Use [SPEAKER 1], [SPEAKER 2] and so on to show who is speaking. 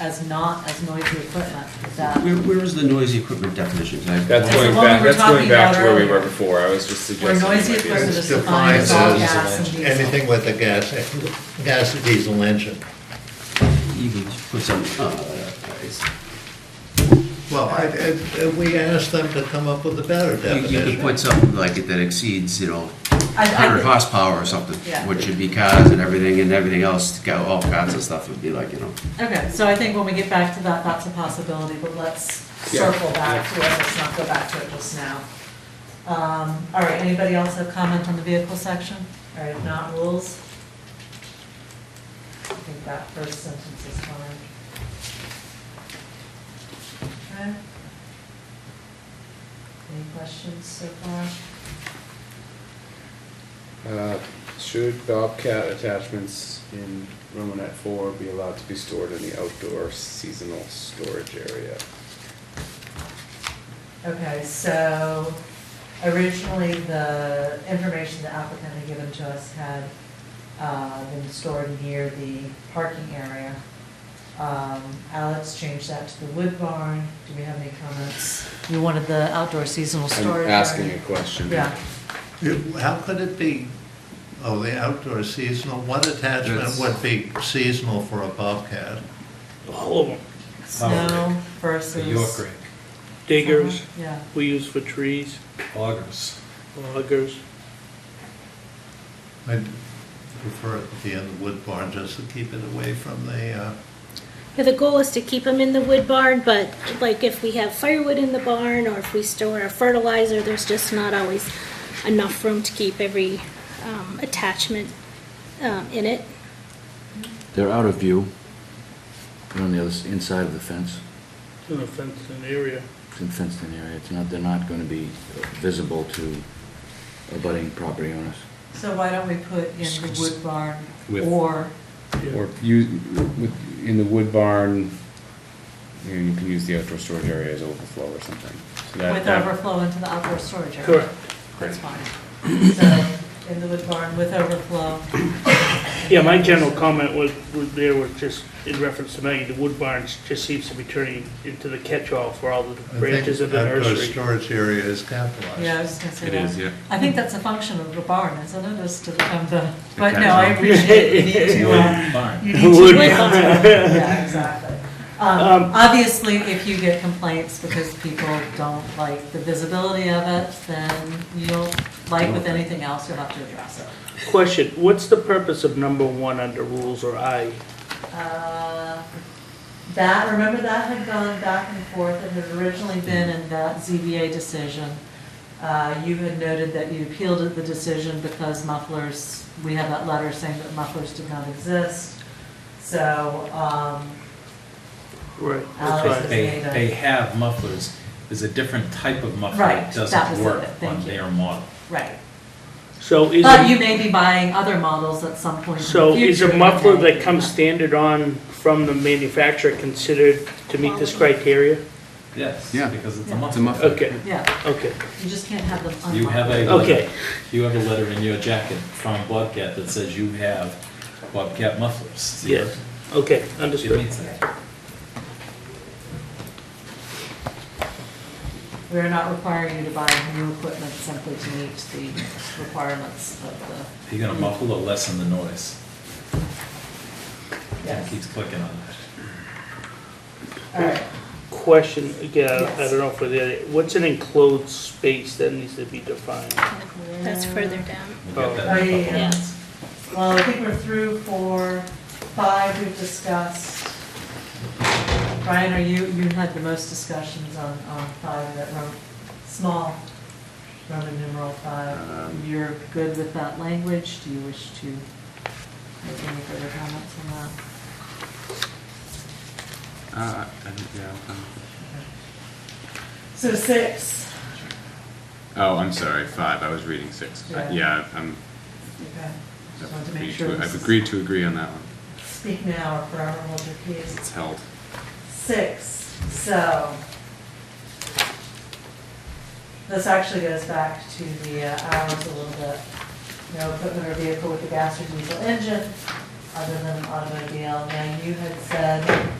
[SPEAKER 1] as not as noisy equipment, that.
[SPEAKER 2] Where, where is the noisy equipment definition? 'Cause I-
[SPEAKER 3] That's
[SPEAKER 1] the
[SPEAKER 3] going
[SPEAKER 1] one we
[SPEAKER 3] back,
[SPEAKER 1] were
[SPEAKER 3] that's going
[SPEAKER 1] talking
[SPEAKER 3] back to
[SPEAKER 1] about
[SPEAKER 3] where we were
[SPEAKER 1] earlier.
[SPEAKER 3] before, I was just
[SPEAKER 1] Where
[SPEAKER 3] suggesting.
[SPEAKER 1] noised
[SPEAKER 3] it might be a-
[SPEAKER 1] equipment is defined as all
[SPEAKER 4] Defines
[SPEAKER 1] gas and diesel.
[SPEAKER 4] Anything with a gas, gas or diesel engine.
[SPEAKER 2] You could put some, uh, it's-
[SPEAKER 4] Well, Oh, I, I- we asked them to come up with a better
[SPEAKER 2] you you could
[SPEAKER 4] definition.
[SPEAKER 2] put something like it that exceeds, you know,
[SPEAKER 1] I- I
[SPEAKER 2] hundred
[SPEAKER 1] think-
[SPEAKER 2] horsepower or something,
[SPEAKER 1] Yeah.
[SPEAKER 2] which would be cars and everything, and everything else, go- all kinds of stuff would be like, you know.
[SPEAKER 1] Okay, so I think when we get back to that, that's a possibility, but let's
[SPEAKER 3] Yeah.
[SPEAKER 1] circle back to it, let's not go back to it just now. Um, all right, anybody else have comment on the vehicle section? All right, if not rules? I think that first sentence is fine. Okay. Any questions so far?
[SPEAKER 3] Uh, Should bobcat attachments in Romanet four be allowed to be stored in the outdoor seasonal storage area?
[SPEAKER 1] Okay, so originally, the information the applicant had given to us had uh, been stored near the parking area. Um, Alex changed that to the wood barn. Do we have any comments? You wanted the outdoor seasonal
[SPEAKER 3] I'm
[SPEAKER 1] storage
[SPEAKER 3] asking a
[SPEAKER 1] area?
[SPEAKER 3] question.
[SPEAKER 1] Yeah,
[SPEAKER 4] It- How could it be, oh, the outdoor seasonal, what attachment
[SPEAKER 3] That's-
[SPEAKER 4] would be seasonal for a Bobcat?
[SPEAKER 5] all of them.
[SPEAKER 1] snow versus.
[SPEAKER 5] Diggers,
[SPEAKER 1] Uh-huh, Yeah,
[SPEAKER 5] we use for trees,
[SPEAKER 6] augers.
[SPEAKER 5] loggers.
[SPEAKER 4] I'd prefer it to be in the wood barn, just to keep it away from the, uh,
[SPEAKER 7] Yeah, The goal is to keep them in the wood barn, but like if we have firewood in the barn or if we store our fertilizer, there's just not always enough room to keep every um, attachment um, in it.
[SPEAKER 8] They're out of view. They're on the other, s- inside of the fence,
[SPEAKER 5] It's in a fenced in area.
[SPEAKER 8] it's in fenced-in area. It's not, they're not gonna be visible to abutting property owners.
[SPEAKER 1] so why don't we put in the wood barn
[SPEAKER 3] With-
[SPEAKER 1] or,
[SPEAKER 3] Or you, with, in the wood barn, you know, you can use the outdoor storage area as overflow or something. So that-
[SPEAKER 1] with
[SPEAKER 3] that-
[SPEAKER 1] overflow into the outdoor storage area?
[SPEAKER 5] Correct.
[SPEAKER 1] That's fine. So in the wood barn with overflow.
[SPEAKER 5] Yeah, my general comment was, was there was just in reference to Maggie, the wood barns just seems to be turning into the catch-all for all the
[SPEAKER 4] I
[SPEAKER 5] branches of
[SPEAKER 4] think
[SPEAKER 5] the
[SPEAKER 4] outdoor
[SPEAKER 5] nursery.
[SPEAKER 4] storage area is capitalized.
[SPEAKER 1] Yeah, I was just gonna say
[SPEAKER 3] It
[SPEAKER 1] that.
[SPEAKER 3] is, yeah.
[SPEAKER 1] I think that's a function of the barn, isn't it, is to become the, but no,
[SPEAKER 2] catch-all.
[SPEAKER 1] I appreciate you need to, uh, you need to.
[SPEAKER 5] Wood
[SPEAKER 7] barn.
[SPEAKER 1] Yeah, exactly. Um,
[SPEAKER 5] Um,
[SPEAKER 1] obviously, if you get complaints because people don't like the visibility of it, then you'll, like with anything else, you'll have to address it.
[SPEAKER 5] Question, what's the purpose of number one under rules or I?
[SPEAKER 1] Uh, That, remember that had gone back and forth, it had originally been in that ZBA decision. Uh, You had noted that you appealed the decision because mufflers, we had that letter saying that mufflers did not exist. So, um,
[SPEAKER 5] Right, that's
[SPEAKER 1] Alex
[SPEAKER 5] right.
[SPEAKER 6] They, they have mufflers. There's a different type of muffler
[SPEAKER 1] Right,
[SPEAKER 6] that
[SPEAKER 1] that was
[SPEAKER 6] doesn't
[SPEAKER 1] it,
[SPEAKER 6] work
[SPEAKER 1] thank
[SPEAKER 6] on
[SPEAKER 1] you.
[SPEAKER 6] their model.
[SPEAKER 1] right.
[SPEAKER 5] So is,
[SPEAKER 1] But you
[SPEAKER 5] a-
[SPEAKER 1] may be buying other models at some point in the
[SPEAKER 5] so is a
[SPEAKER 1] future
[SPEAKER 5] muffler
[SPEAKER 1] may-
[SPEAKER 5] that comes standard on from the manufacturer considered to meet this criteria?
[SPEAKER 6] Yes,
[SPEAKER 8] Yeah.
[SPEAKER 6] because it's
[SPEAKER 1] Yeah.
[SPEAKER 6] a
[SPEAKER 8] It's a
[SPEAKER 6] muffler.
[SPEAKER 8] muffler.
[SPEAKER 5] Okay,
[SPEAKER 1] Yeah,
[SPEAKER 5] okay,
[SPEAKER 1] you just can't have them unmuffled.
[SPEAKER 6] You have a
[SPEAKER 5] okay.
[SPEAKER 6] letter, you have a letter in your jacket from Bobcat that says you have Bobcat mufflers.
[SPEAKER 5] Yeah, okay,
[SPEAKER 6] It
[SPEAKER 5] understood.
[SPEAKER 6] means that.
[SPEAKER 1] We're not requiring you to buy new equipment simply to meet the requirements of
[SPEAKER 6] You're gonna muffle or lessen the noise.
[SPEAKER 1] the,
[SPEAKER 6] It
[SPEAKER 1] yes,
[SPEAKER 6] keeps clicking on that.
[SPEAKER 1] all right.
[SPEAKER 5] Question, again, I
[SPEAKER 1] Yes.
[SPEAKER 5] don't know for the, what's an enclosed space that needs to be defined?
[SPEAKER 7] That's further down.
[SPEAKER 6] We'll get
[SPEAKER 1] Oh,
[SPEAKER 6] that. in a
[SPEAKER 1] yeah,
[SPEAKER 6] couple
[SPEAKER 1] yeah. Well, I think we're through for five we've discussed. Brian, are you, you had the most discussions on, on five, that Rom small, Roman numeral five.
[SPEAKER 2] Um,
[SPEAKER 1] You're good with that language? Do you wish to make any further comments on that?
[SPEAKER 3] Uh, I don't, yeah, I don't-
[SPEAKER 1] So six.
[SPEAKER 3] Oh, I'm sorry, five, I was reading six. Uh,
[SPEAKER 1] Yeah.
[SPEAKER 3] Yeah, I'm,
[SPEAKER 1] Okay. Just wanted
[SPEAKER 3] I've
[SPEAKER 1] to make
[SPEAKER 3] agreed
[SPEAKER 1] sure
[SPEAKER 3] to,
[SPEAKER 1] this
[SPEAKER 3] I've
[SPEAKER 1] is-
[SPEAKER 3] agreed to agree on that one.
[SPEAKER 1] Speak now or forever hold your peace.
[SPEAKER 3] It's held.
[SPEAKER 1] Six, so. This actually goes back to the uh, hours a little bit. No equipment or vehicle with a gas or diesel engine other than an automobile. Now, you had said